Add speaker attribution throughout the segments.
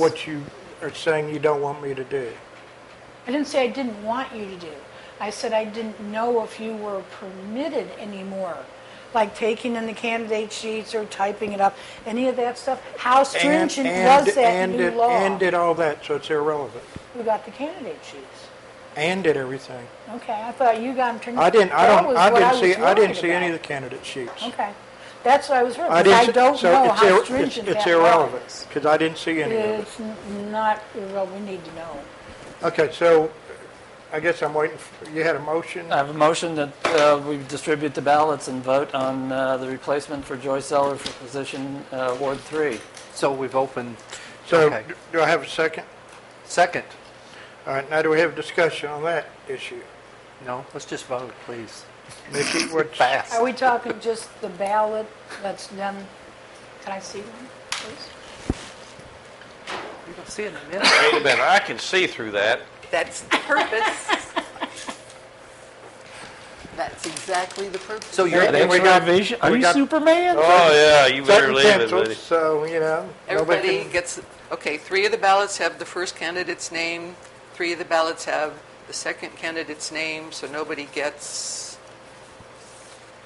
Speaker 1: what you are saying you don't want me to do.
Speaker 2: I didn't say I didn't want you to do. I said I didn't know if you were permitted anymore, like taking in the candidate sheets or typing it up, any of that stuff. How
Speaker 1: And-
Speaker 2: stringent
Speaker 1: and-
Speaker 2: was that
Speaker 1: and
Speaker 2: new
Speaker 1: did-
Speaker 2: law?
Speaker 1: And did all that, so it's irrelevant.
Speaker 2: Who got the candidate sheets?
Speaker 1: And did everything.
Speaker 2: Okay, I thought you got them turned.
Speaker 1: I didn't, I
Speaker 2: That
Speaker 1: don't,
Speaker 2: was
Speaker 1: I
Speaker 2: what
Speaker 1: didn't see,
Speaker 2: was
Speaker 1: I didn't
Speaker 2: worried
Speaker 1: see any of the
Speaker 2: about.
Speaker 1: candidate sheets.
Speaker 2: Okay, that's what I was worried,
Speaker 1: I
Speaker 2: because I
Speaker 1: didn't see-
Speaker 2: don't
Speaker 1: so
Speaker 2: know
Speaker 1: it's ir-
Speaker 2: how
Speaker 1: it's-
Speaker 2: stringent that law is.
Speaker 1: It's irrelevant, because I didn't see any of it.
Speaker 2: It's n- not, irrelevant. we need to know.
Speaker 1: Okay, so I guess I'm waiting, for you had a motion?
Speaker 3: I have a motion that uh, we distribute the ballots and vote on uh, the replacement for Joyce Zeller for position uh, Ward 3.
Speaker 4: So we've opened,
Speaker 1: So
Speaker 4: okay.
Speaker 1: d- do I have a second?
Speaker 4: Second,
Speaker 1: All right, now do we have discussion on that issue?
Speaker 4: no, let's just vote, please.
Speaker 1: Nikki, what's,
Speaker 4: Fast.
Speaker 2: Are we talking just the ballot that's done? Can I see one, please?
Speaker 4: You don't see it in a minute.
Speaker 5: Wait a minute, I can see through that.
Speaker 6: That's the purpose. That's exactly the purpose.
Speaker 4: So you're,
Speaker 1: And we got- we got-
Speaker 3: Superman?
Speaker 5: Oh, yeah, you better
Speaker 1: Second
Speaker 5: leave it,
Speaker 1: pencils,
Speaker 5: buddy.
Speaker 1: So, you know. nobody
Speaker 6: Everybody
Speaker 1: can-
Speaker 6: gets, okay, three of the ballots have the first candidate's name, three of the ballots have the second candidate's name, so nobody gets,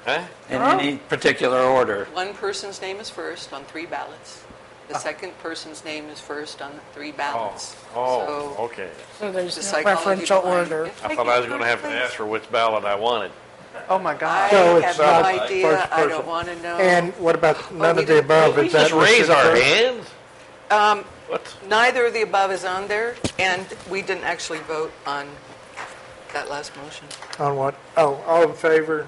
Speaker 5: Huh?
Speaker 3: In any particular order.
Speaker 6: one person's name is first on three ballots.
Speaker 1: Ah.
Speaker 6: The second person's name is first on three
Speaker 5: Oh,
Speaker 6: ballots.
Speaker 5: oh, okay.
Speaker 2: So
Speaker 6: So
Speaker 2: there's
Speaker 6: the
Speaker 2: no
Speaker 6: psychology
Speaker 2: preferential
Speaker 6: behind-
Speaker 2: order.
Speaker 5: I thought I was going to have to ask for which ballot I wanted.
Speaker 4: oh my
Speaker 6: I
Speaker 4: God.
Speaker 1: So it's
Speaker 6: have no
Speaker 1: not
Speaker 6: idea,
Speaker 1: first
Speaker 6: I
Speaker 1: person.
Speaker 6: don't want to know.
Speaker 1: And what about none
Speaker 6: we
Speaker 1: of the
Speaker 6: didn't-
Speaker 1: above?
Speaker 5: We
Speaker 1: Is that
Speaker 5: just raise
Speaker 1: listed
Speaker 5: our
Speaker 1: first?
Speaker 5: hands? What?
Speaker 6: Neither of the above is on there, and we didn't actually vote on that last motion.
Speaker 1: On what? Oh, all in favor?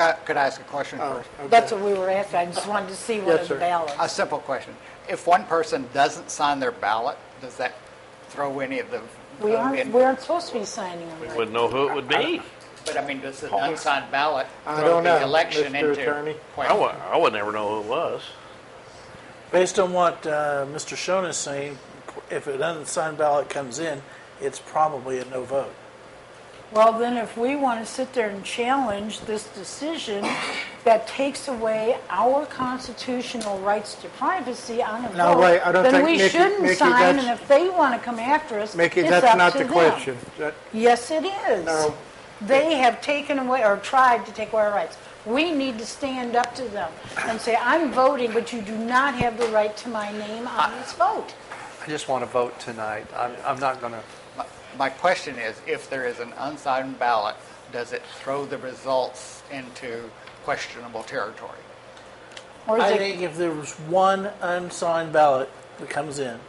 Speaker 7: Uh, Could I ask a question
Speaker 1: Oh.
Speaker 7: first?
Speaker 2: That's what we were after, I just wanted to see one
Speaker 1: Yes,
Speaker 2: of the
Speaker 1: sir.
Speaker 7: A
Speaker 2: ballots.
Speaker 7: simple question. If one person doesn't sign their ballot, does that throw any of the
Speaker 2: We
Speaker 7: vote
Speaker 2: aren't,
Speaker 7: in?
Speaker 2: we aren't supposed to be signing them. right?
Speaker 5: Wouldn't know who it would be.
Speaker 7: But I mean, does the unsigned ballot
Speaker 1: I
Speaker 7: throw
Speaker 1: don't know,
Speaker 7: the election
Speaker 1: Mr.
Speaker 7: into?
Speaker 1: Attorney.
Speaker 5: I would, I would never know who it was.
Speaker 8: Based on what uh, Mr. Shone is saying, if an unsigned ballot comes in, it's probably a no vote.
Speaker 2: Well, then if we want to sit there and challenge this decision that takes away our constitutional rights to privacy on a
Speaker 1: No, wait, I
Speaker 2: vote,
Speaker 1: don't
Speaker 2: then
Speaker 1: think-
Speaker 2: we
Speaker 1: Mickey-
Speaker 2: shouldn't
Speaker 1: Mickey,
Speaker 2: sign,
Speaker 1: that's-
Speaker 2: and if they want to come after us, it's up to
Speaker 1: Mickey,
Speaker 2: them.
Speaker 1: that's not the question. That-
Speaker 2: Yes, it is.
Speaker 1: No.
Speaker 2: They have taken away, or tried to take away our rights. We need to stand up to them and say, I'm voting, but you do not have the right to my name on this vote.
Speaker 4: I just want to vote tonight. I'm, I'm not going to,
Speaker 7: My- My question is, if there is an unsigned ballot, does it throw the results into questionable territory?
Speaker 2: Or is
Speaker 8: I
Speaker 2: it-
Speaker 8: think if there was one unsigned ballot that comes in,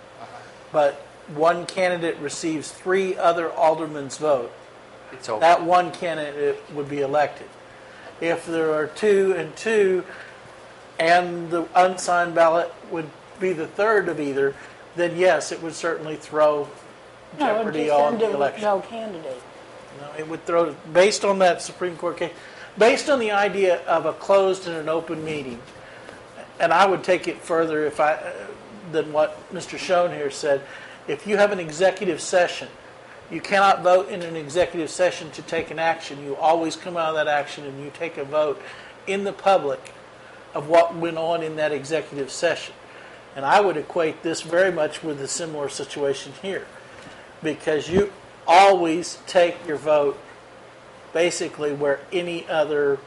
Speaker 8: but one candidate receives three other aldermen's vote,
Speaker 4: it's over.
Speaker 8: that one candidate would be elected. If there are two and two, and the unsigned ballot would be the third of either, then yes, it would certainly throw
Speaker 2: no, it
Speaker 8: jeopardy
Speaker 2: just
Speaker 8: on
Speaker 2: ended
Speaker 8: the
Speaker 2: with
Speaker 8: election.
Speaker 2: No candidate.
Speaker 8: No, it would throw, based on that Supreme Court case, based on the idea of a closed and an open meeting, and I would take it further if I, uh, than what Mr. Schoen here said, if you have an executive session, you cannot vote in an executive session to take an action. You always come out of that action and you take a vote in the public of what went on in that executive session. And I would equate this very much with a similar situation here because you always take your vote basically where any other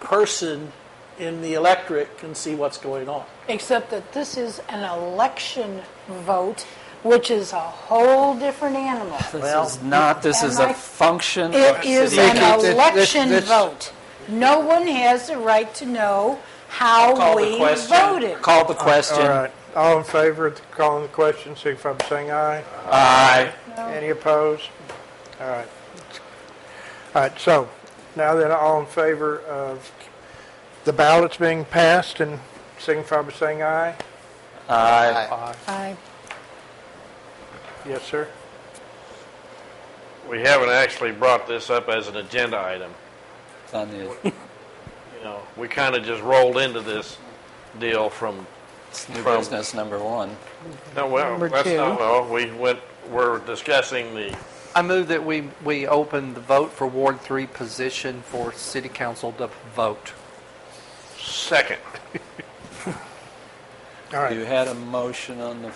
Speaker 8: person in the electorate can see what's going on.
Speaker 2: Except that this is an election vote, which is a whole different animal.
Speaker 3: This is not, this is
Speaker 2: Am I-
Speaker 3: a function of
Speaker 2: It is
Speaker 3: city.
Speaker 1: Mickey,
Speaker 2: an
Speaker 1: this- this-
Speaker 2: election
Speaker 1: this-
Speaker 2: vote. No one has the right to know how
Speaker 3: Call the
Speaker 2: we
Speaker 3: question.
Speaker 2: voted.
Speaker 3: Call the
Speaker 1: All
Speaker 3: question.
Speaker 1: right, all in favor of calling the question, see if I'm saying aye?
Speaker 3: Aye.
Speaker 1: Any opposed? All right. All right, so now then, all in favor of the ballots being passed and signify by saying aye?
Speaker 3: Aye.
Speaker 2: Aye.
Speaker 1: Yes, sir?
Speaker 5: We haven't actually brought this up as an agenda item.
Speaker 3: It's on the-
Speaker 5: You know, we kind of just rolled into this deal from,
Speaker 3: it's New
Speaker 5: From-
Speaker 3: business number one.
Speaker 5: no, well,
Speaker 1: Number
Speaker 5: that's
Speaker 1: two.
Speaker 5: not, well, we went, we're discussing the,
Speaker 4: I move that we, we open the vote for Ward 3 position for city council to vote.
Speaker 5: Second.
Speaker 1: All right.
Speaker 3: You had a motion on the